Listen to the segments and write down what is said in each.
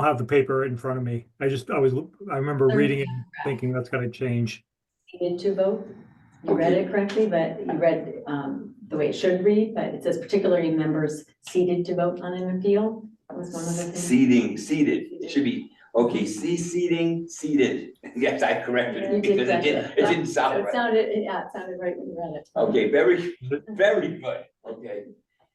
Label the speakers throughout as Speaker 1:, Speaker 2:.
Speaker 1: don't have the paper in front of me. I just, I was, I remember
Speaker 2: Um,
Speaker 1: reading it, and thinking that's gotta change.
Speaker 2: needed to vote. You read it correctly, but you read um, the way it should read, but it says particularly members seated to vote on an appeal. That was one of the things.
Speaker 3: Seating, seated, it should be, okay, see seating, seated. Yes, I corrected
Speaker 2: You did
Speaker 3: it because it didn't,
Speaker 2: correct it.
Speaker 3: it didn't sound
Speaker 2: It
Speaker 3: right.
Speaker 2: sounded, it- yeah, it sounded right when you read it.
Speaker 3: Okay, very, very good, okay.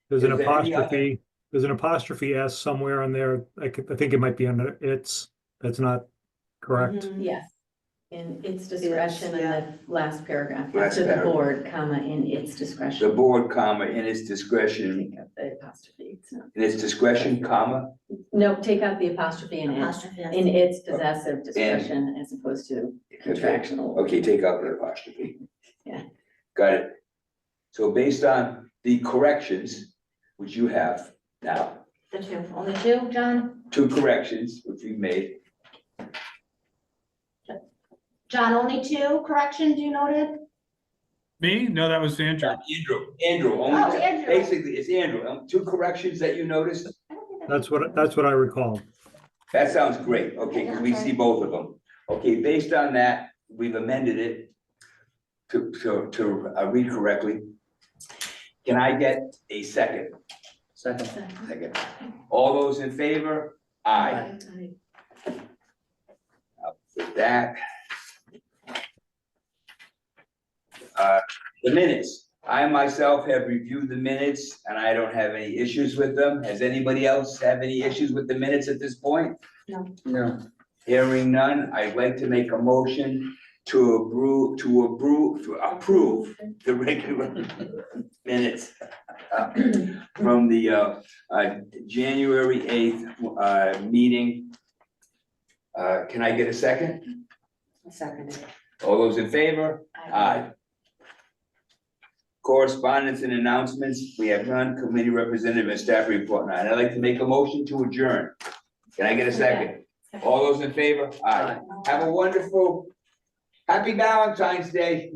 Speaker 1: There's an
Speaker 3: Is there any other-
Speaker 1: apostrophe, there's an apostrophe S somewhere on there. I could, I think it might be under it's, that's not correct.
Speaker 4: Mhm.
Speaker 2: Yes. In its discretion in the last paragraph,
Speaker 3: Last
Speaker 2: after the
Speaker 3: paragraph.
Speaker 2: board, comma, in its discretion.
Speaker 3: The board, comma, in its discretion,
Speaker 2: Take out the apostrophe. It's not-
Speaker 3: in its discretion, comma,
Speaker 2: No, take out the apostrophe in its,
Speaker 4: Apostrophe, yes.
Speaker 2: in its possessive discretion as opposed to contractual.
Speaker 3: okay, take out the apostrophe.
Speaker 2: Yeah.
Speaker 3: Got it. So based on the corrections, which you have now,
Speaker 4: The two, only two, John?
Speaker 3: two corrections which we made,
Speaker 4: John, only two corrections you noted?
Speaker 5: Me? No, that was Andrew.
Speaker 3: Andrew, Andrew,
Speaker 4: Oh,
Speaker 3: only,
Speaker 4: Andrew.
Speaker 3: basically, it's Andrew, um, two corrections that you noticed?
Speaker 4: I don't think
Speaker 1: That's what, that's what I recall.
Speaker 3: That sounds great, okay, because we see both of them. Okay, based on that, we've amended it to, to, to uh, read correctly. Can I get a second?
Speaker 6: Second.
Speaker 3: Second. All those in favor? Aye.
Speaker 2: Aye.
Speaker 3: With that. Uh, the minutes, I myself have reviewed the minutes and I don't have any issues with them. Has anybody else have any issues with the minutes at this point?
Speaker 6: No,
Speaker 3: Hearing none, I'd like to make a motion to approve, to approve, to approve the regular minutes uh, from the uh, uh, January eighth uh, meeting. Uh, Can I get a second?
Speaker 4: Second.
Speaker 3: All those in favor? Aye. Correspondence and announcements, we have none, committee representative and staff report, and I'd like to make a motion to adjourn. Can I get a second? All those in favor? Aye. Have a wonderful, happy Valentine's Day.